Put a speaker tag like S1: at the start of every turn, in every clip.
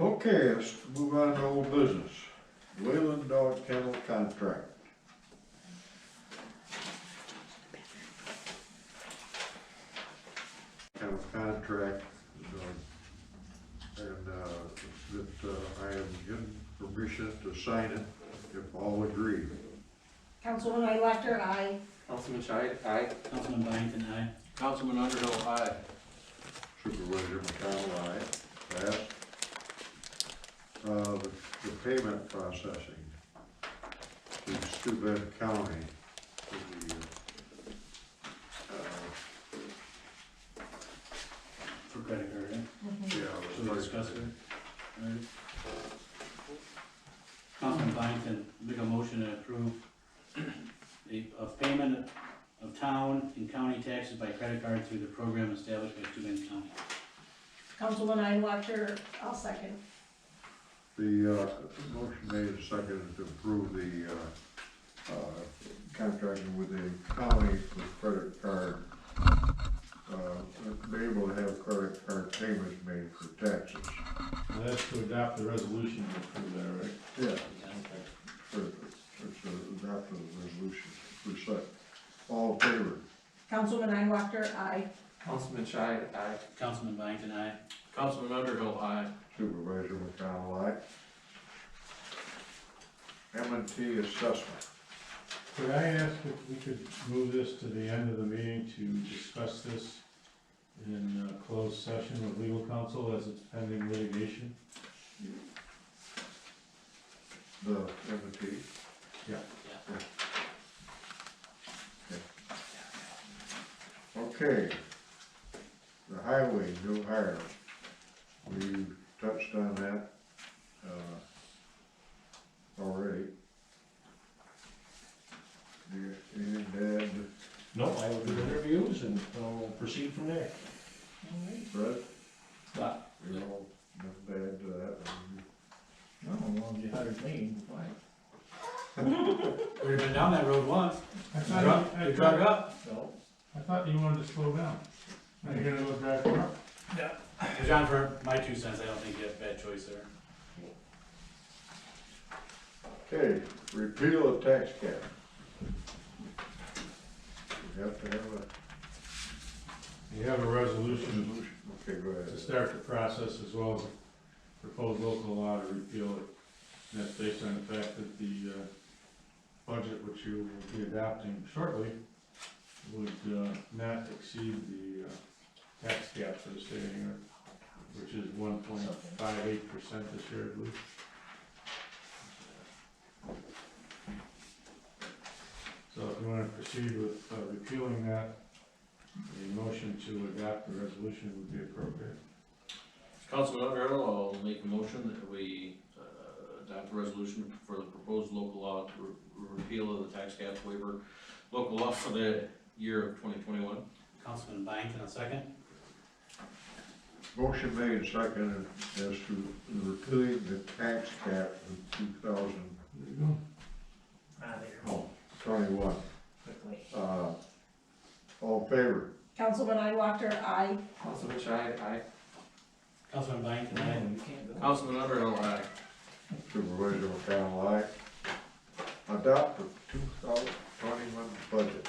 S1: Okay, let's move on to old business. Wayland Dog Kennel Contract. Have a contract, uh, and, uh, that uh, I am given permission to sign it if all agree.
S2: Councilwoman Elector, aye.
S3: Councilman Shai, aye.
S4: Councilman Byington, aye.
S3: Councilman Underhill, aye.
S1: Supervisor McConnell, aye. Passed. Uh, the, the payment processing to Steuben County for the, uh,
S4: For credit card, right?
S1: yeah.
S4: Should we discuss it? Alright. Councilman Byington, make a motion to approve the, of payment of town and county taxes by credit card through the program established by Steuben County.
S2: Councilwoman Elector, I'll second.
S1: The, uh, motion made and seconded to approve the, uh, uh, contracting with the county for credit card. Uh, be able to have credit card payments made for taxes.
S5: Now, That's to adopt the resolution to approve that, right?
S1: Yeah.
S5: Okay.
S1: Perfect. It's a, adopt the resolution, per se. All in favor?
S2: Councilwoman Elector, aye.
S3: Councilman Shai, aye.
S4: Councilman Byington, aye.
S3: Councilman Underhill, aye.
S1: Supervisor McConnell, aye. M and T assessment.
S5: Could I ask if we could move this to the end of the meeting to discuss this in uh, closed session with legal counsel as it's pending litigation?
S1: The M and T?
S5: Yeah.
S1: Okay. The highway, new hire. We touched on that, uh, already. Do you- Anything to add,
S6: No, I will do the interviews and I'll proceed from there.
S1: Brett?
S6: But,
S1: You know, nothing to add to that. one.
S6: no, well, you hired me, why?
S4: We've been down that road once.
S5: I
S4: You drug-
S5: thought,
S4: you drug up,
S6: No,
S5: I thought you wanted to slow down. Now you're gonna go back up?
S4: John, for my two cents, I don't think you have a bad choice there.
S1: Okay, repeal of tax cap. We have to have a
S5: You have a resolution
S1: resolution. Okay, go
S5: to
S1: ahead.
S5: start the process as well as proposed local law to repeal it. And that's based on the fact that the, uh, budget which you will be adopting shortly would, uh, not exceed the, uh, tax cap for the state of New York, which is one point five eight percent this year, I believe. So if you wanna proceed with uh, repealing that, the motion to adopt the resolution would be appropriate.
S7: Councilman Underhill, I'll make a motion that we uh, adopt a resolution for the proposed local law to re- repeal of the tax cap waiver, local law for the year of twenty twenty-one.
S4: Councilman Byington, a second.
S1: Motion made and seconded as to repealing the tax cap of two thousand oh,
S5: There you go.
S6: ah, there,
S1: twenty-one.
S6: quickly.
S1: Uh, all in favor?
S2: Councilwoman Elector, aye.
S3: Councilman Shai, aye.
S4: Councilman Byington,
S6: No,
S4: aye.
S6: you can't go.
S7: Councilman Underhill, aye.
S1: Supervisor McConnell, aye. Adopt the two thousand twenty-one budget.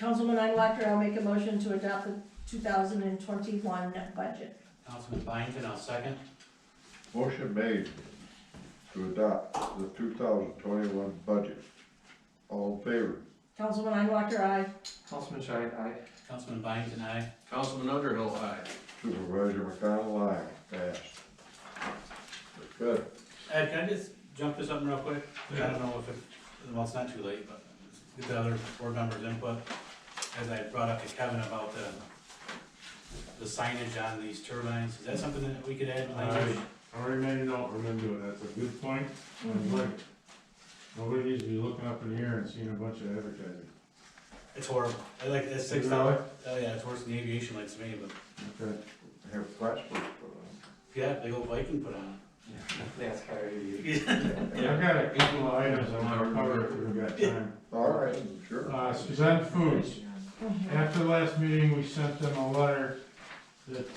S2: Councilwoman Elector, I'll make a motion to adopt the two thousand and twenty-one budget.
S4: Councilman Byington, I'll second.
S1: Motion made to adopt the two thousand twenty-one budget. All in favor?
S2: Councilwoman Elector, aye.
S3: Councilman Shai, aye.
S4: Councilman Byington, aye.
S7: Councilman Underhill, aye.
S1: Supervisor McConnell, aye. Passed. Good.
S4: Ed, can I just jump to something real quick? I don't know if it, well, it's not too late, but get the other board members' input. As I brought up to Kevin about the, the signage on these turbines, is that something that we could add? language?
S5: I already made a note, we're gonna do it, that's a good point, and like, nobody needs to be looking up in the air and seeing a bunch of advertising.
S4: It's horrible. I like, that's six dollars. Oh, yeah, it's worse than the aviation lights to me, but,
S5: Okay,
S1: Have plastic put on.
S4: yeah, big old Viking put on
S3: NASCAR, you.
S5: I've got a couple of items I wanna cover if we've got time.
S1: All right, sure.
S5: Uh,
S2: Mm-hmm.
S5: Suzanne Foods, after the last meeting, we sent them a letter that